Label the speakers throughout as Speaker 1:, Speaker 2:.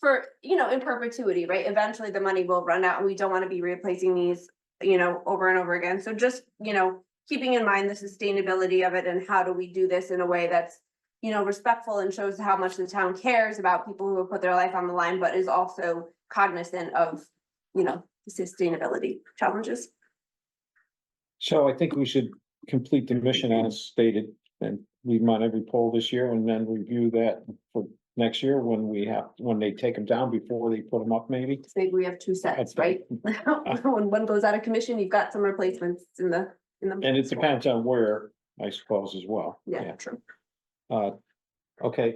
Speaker 1: for, you know, in perpetuity, right? Eventually the money will run out and we don't want to be replacing these, you know, over and over again. So just, you know, keeping in mind the sustainability of it and how do we do this in a way that's, you know, respectful and shows how much the town cares about people who have put their life on the line, but is also cognizant of, you know, sustainability challenges.
Speaker 2: So I think we should complete the mission as stated and leave them on every poll this year and then review that for next year when we have, when they take them down before they put them up maybe.
Speaker 1: So Maybe we have two sets, right? When one goes out of commission, you've got some replacements in the, in the.
Speaker 2: And it depends on where, I suppose, as well.
Speaker 1: Yeah, true.
Speaker 2: Yeah. Uh, okay,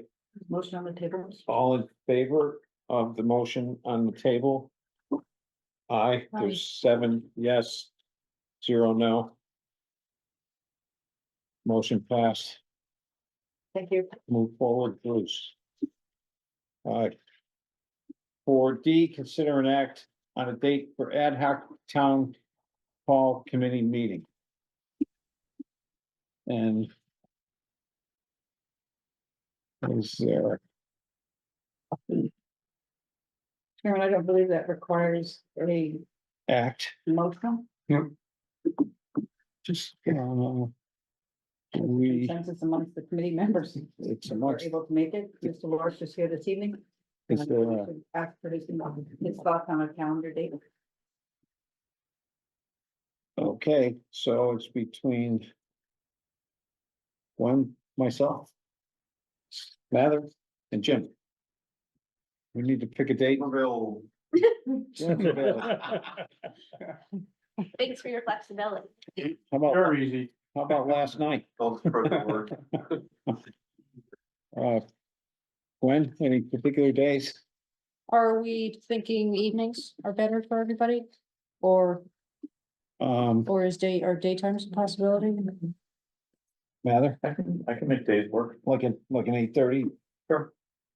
Speaker 3: Motion on the table.
Speaker 2: all in favor of the motion on the table? Aye, there's seven yes, zero no. Motion passed.
Speaker 3: Thank you.
Speaker 2: Move forward, Bruce. Alright. For D, consider an act on a date for ad hoc town hall committee meeting. And. Is there,
Speaker 3: Chairman, I don't believe that requires a
Speaker 2: act,
Speaker 3: motion.
Speaker 2: just, um. We,
Speaker 3: Consensus amongst the committee members.
Speaker 2: it's a
Speaker 3: We're
Speaker 2: much,
Speaker 3: able to make it. Mr. Lawrence is here this evening.
Speaker 2: is there, a- uh,
Speaker 3: Ask for his, his thoughts on a calendar date.
Speaker 2: okay, so it's between. One, myself. Mather and Jim. We need to pick a date.
Speaker 4: Bill.
Speaker 2: How
Speaker 1: Thanks for your flexibility.
Speaker 2: about,
Speaker 4: easy.
Speaker 2: how about last night? Uh, Gwen, any particular days?
Speaker 5: Are we thinking evenings are better for everybody? Or,
Speaker 2: Um,
Speaker 5: or is day, or daytime's a possibility?
Speaker 2: Mather,
Speaker 4: I can, I can make days work.
Speaker 2: like an, like an eight thirty, you're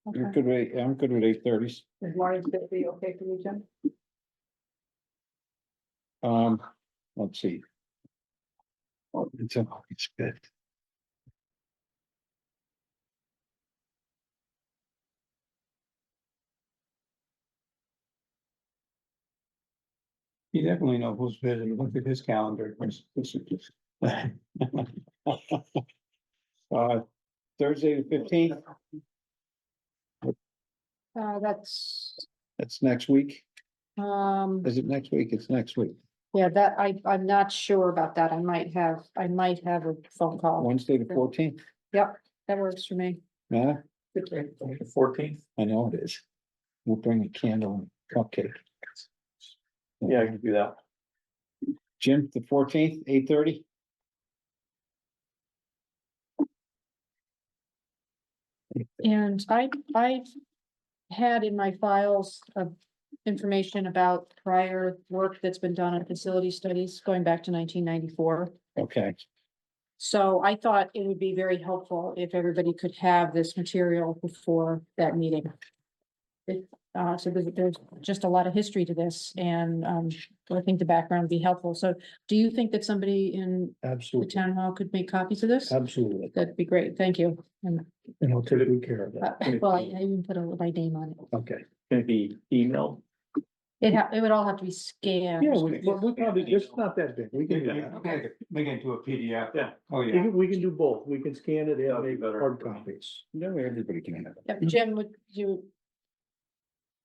Speaker 5: Okay.
Speaker 2: good with, I'm good with eight thirties.
Speaker 3: Is Lawrence gonna be okay for you, Jim?
Speaker 2: Um, let's see. Oh, It's, a- it's good.
Speaker 4: You definitely know who's busy. Look at his calendar.
Speaker 2: Uh, Thursday the fifteenth,
Speaker 5: Uh, that's,
Speaker 2: that's next week.
Speaker 5: um,
Speaker 2: Is it next week? It's next week.
Speaker 5: yeah, that, I, I'm not sure about that. I might have, I might have a phone call.
Speaker 2: Wednesday the fourteenth,
Speaker 5: Yep, that works for me.
Speaker 2: Mather?
Speaker 4: Fourteenth?
Speaker 2: I know it is. We'll bring a candle and cupcake.
Speaker 4: Yeah, I can do that.
Speaker 2: Jim, the fourteenth, eight thirty?
Speaker 5: And I, I had in my files of information about prior work that's been done on facility studies going back to nineteen ninety-four.
Speaker 2: Okay,
Speaker 5: So I thought it would be very helpful if everybody could have this material before that meeting. It, uh, so there's, there's just a lot of history to this and, um, I think the background would be helpful. So do you think that somebody in the
Speaker 4: Absolutely,
Speaker 5: town hall could make copies of this?
Speaker 4: absolutely.
Speaker 5: That'd be great. Thank you. And,
Speaker 4: And I'll take good care of
Speaker 5: uh, well, I even put a my name on it.
Speaker 4: Okay. Can it be emailed?
Speaker 5: It ha, it would all have to be scanned.
Speaker 4: Yeah, we,
Speaker 2: well,
Speaker 4: we probably,
Speaker 2: it's
Speaker 4: just
Speaker 2: not that big. We can,
Speaker 4: Yeah.
Speaker 6: Okay, make it into a PDF.
Speaker 4: Yeah.
Speaker 6: Oh,
Speaker 4: We
Speaker 6: yeah.
Speaker 4: can, we can do both. We can scan it
Speaker 6: That'd
Speaker 4: and
Speaker 6: be
Speaker 4: make
Speaker 6: better.
Speaker 4: hard copies.
Speaker 2: no, everybody can have it.
Speaker 5: Yep, Jim, would you?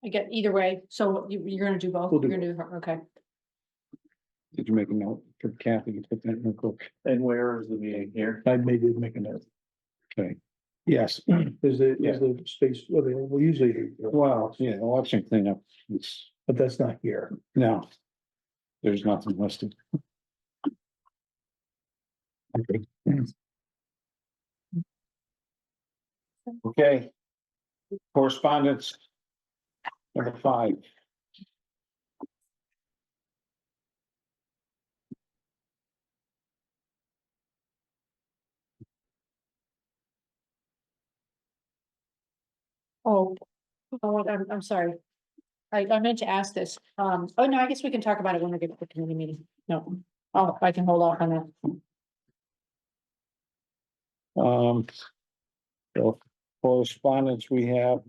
Speaker 5: I get either way. So you, you're gonna do both?
Speaker 4: We'll do
Speaker 5: You're gonna do, okay.
Speaker 2: Did you make a note for Kathy to put that in her book?
Speaker 4: And where is the meeting here?
Speaker 6: I maybe make a note.
Speaker 2: Okay. Yes,
Speaker 6: Is the,
Speaker 4: Yeah.
Speaker 6: is the space, well, they- we usually, do,
Speaker 2: well, yeah, election cleanup, it's,
Speaker 6: but that's not here.
Speaker 2: no. There's nothing listed. Okay. Okay. Correspondence. Number five.
Speaker 5: Oh, oh, I'm, I'm sorry. I, I meant to ask this. Um, oh, no, I guess we can talk about it when we get to the committee meeting. No, oh, I can hold off on that.
Speaker 2: Um. so Correspondence we have